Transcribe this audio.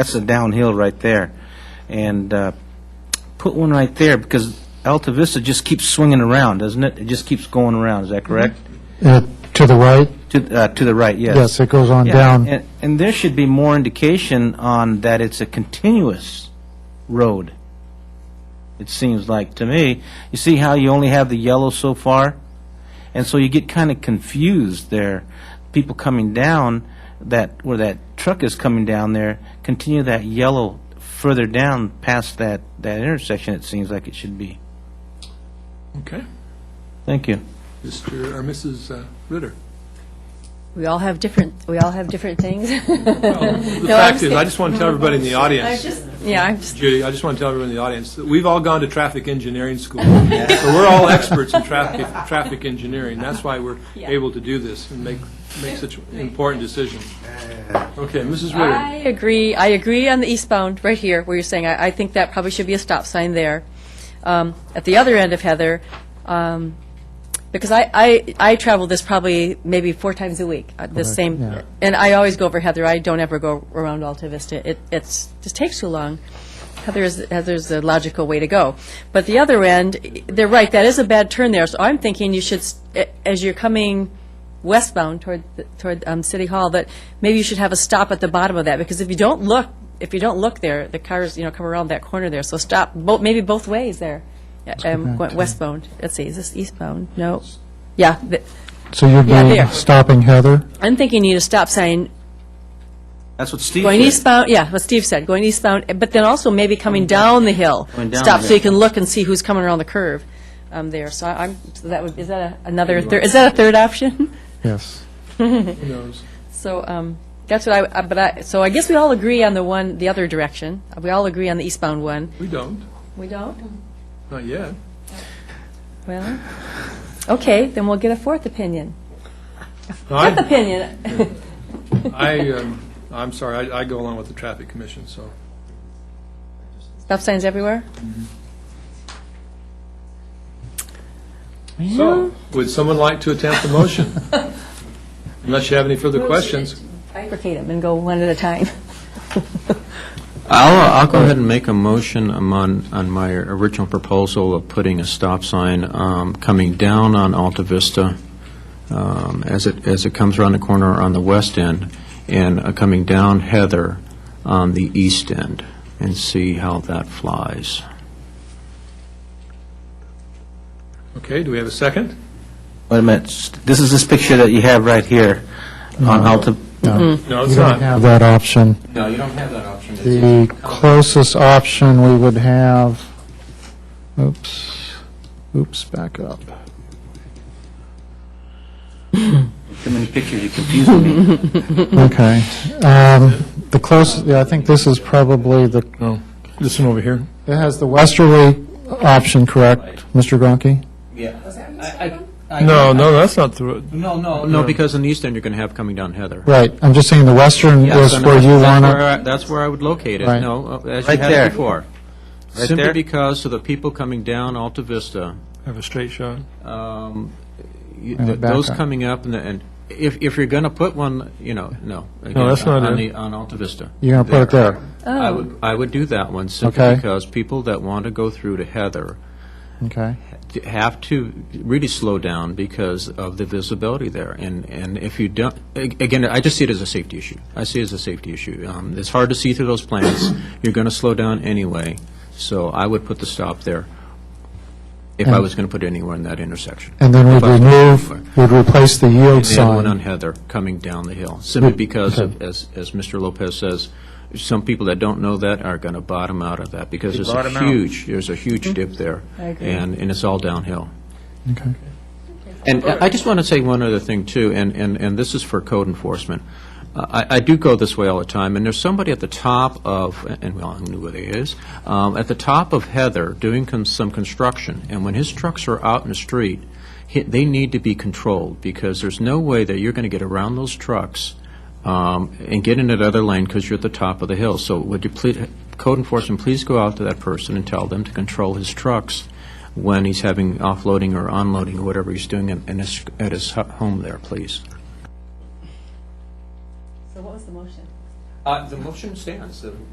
That's a downhill right there. And uh, put one right there, because Alta Vista just keeps swinging around, doesn't it? It just keeps going around, is that correct? Uh, To the right, To uh, to the right, yes. yes, it goes on Yeah, down. and- And there should be more indication on that it's a continuous road, it seems like to me. You see how you only have the yellow so far? And so you get kind of confused there. People coming down, that, where that truck is coming down there, continue that yellow further down past that, that intersection, it seems like it should be. Okay. Thank you. Mr. or Mrs. uh, Ritter? We all have different, we all have different things. The No, I'm fact is, I just want to tell everybody in the I was audience, just, yeah, I'm just, Judy, I just want to tell everyone in the audience, that we've all gone to traffic engineering school. So we're all experts in traffic, traffic engineering. That's why we're Yeah. able to do this and make, make such important decisions. Okay, Mrs. I Ritter? agree, I agree on the eastbound, right here, where you're saying, I, I think that probably should be a stop sign there. Um, at the other end of Heather, um, because I, I, I travel this probably maybe four times a week, uh, yeah. the same, and I always go over Heather, I don't ever go around Alta Vista. It, it's, just takes too long. Heather's, Heather's the logical way to go. But the other end, they're right, that is a bad turn there, so I'm thinking you should, s- a- as you're coming westbound toward, the- toward um, City Hall, that maybe you should have a stop at the bottom of that, because if you don't look, if you don't look there, the cars, you know, come around that corner there, so stop, bo- maybe both ways there. Yeah, Um, back going to- westbound, let's see, is this eastbound? No, yeah, th- So you'd Yeah, be there. stopping Heather? I'm thinking you need a stop sign That's what Steve Going said. eastbound, yeah, what Steve said, going eastbound, but then also maybe coming down the hill. Going down Stop, the so you hill. can look and see who's coming around the curve um, there. So I- I'm, so that would, is that a- another, thir- is that a third option? Yes. Who knows? So um, that's what I, I- but I, so I guess we all agree on the one, the other direction. We all agree on the eastbound one. We don't, We don't? not yet. Well, okay, then we'll get a fourth opinion. No, Fifth I, opinion. I, um, I'm sorry, I I go along with the traffic commission, so. Stop signs everywhere? So, would someone like to attempt the motion? Unless you have any further questions. Bifurcate them and go one at a time. I'll, I'll go ahead and make a motion um, on, on my original proposal of putting a stop sign um, coming down on Alta Vista um, as it, as it comes around the corner on the west end, and uh, coming down Heather on the east end, and see how that flies. Okay, do we have a second? Wait a minute, s- this is this picture that you have right here on Alta, No, No, you it's don't not. have that option. No, you don't have that option. The closest option we would have, oops, oops, back up. too many pictures, you're confusing me. Okay. Um, The closest, yeah, I think this is probably the, No, this one over here. it has the westerly option, correct, Mr. Gronke? No, no, that's not the, No, no, no, because on the east end, you're going to have coming down Heather. Right, I'm just saying the western Yes, is and where that's- you that's want where to, I- That's where I would locate it, Right. no, uh, as you Right had there. it before. Right Simply there. because of the people coming down Alta Vista, have a straight shot. um, you- Yeah, th- back those up. coming up, and the- and if, if you're going to put one, you know, no. No, that's again, not On it. the, on Alta Vista. you're going to put it there. I would, I would do that one, simply Okay. because people that want to go through to Heather Okay. d- have to really slow down because of the visibility there. And, and if you don't, a- again, I just see it as a safety issue. I see it as a safety issue. Um, It's hard to see through those plants. You're going to slow down anyway, so I would put the stop there if I And- was going to put anywhere in that intersection. And then If we'd I was gonna put anywhere. remove, we'd replace the yield And the other one on sign. Mm-hmm. Heather, coming down the hill, simply because, of- okay. as, as Mr. Lopez says, some people that don't know that are going to bottom out of that, because there's a bottom out. huge, there's a Mm-hmm. huge dip there. I agree. And, and it's all downhill. Okay. And I just want to say one other thing, too, and, and, and this is for code enforcement. Uh, I, I do go this way all the time, and there's somebody at the top of, and we all knew where he is, um, at the top of Heather doing con- some construction, and when his trucks are out in the street, he- they need to be controlled, because there's no way that you're going to get around those trucks um, and get in that other lane because you're at the top of the hill. So would you please, code enforcement, please go out to that person and tell them to control his trucks when he's having offloading or unloading or whatever he's doing in, in his, at his hu- home there, please. So what was the motion? Uh, the motion stands.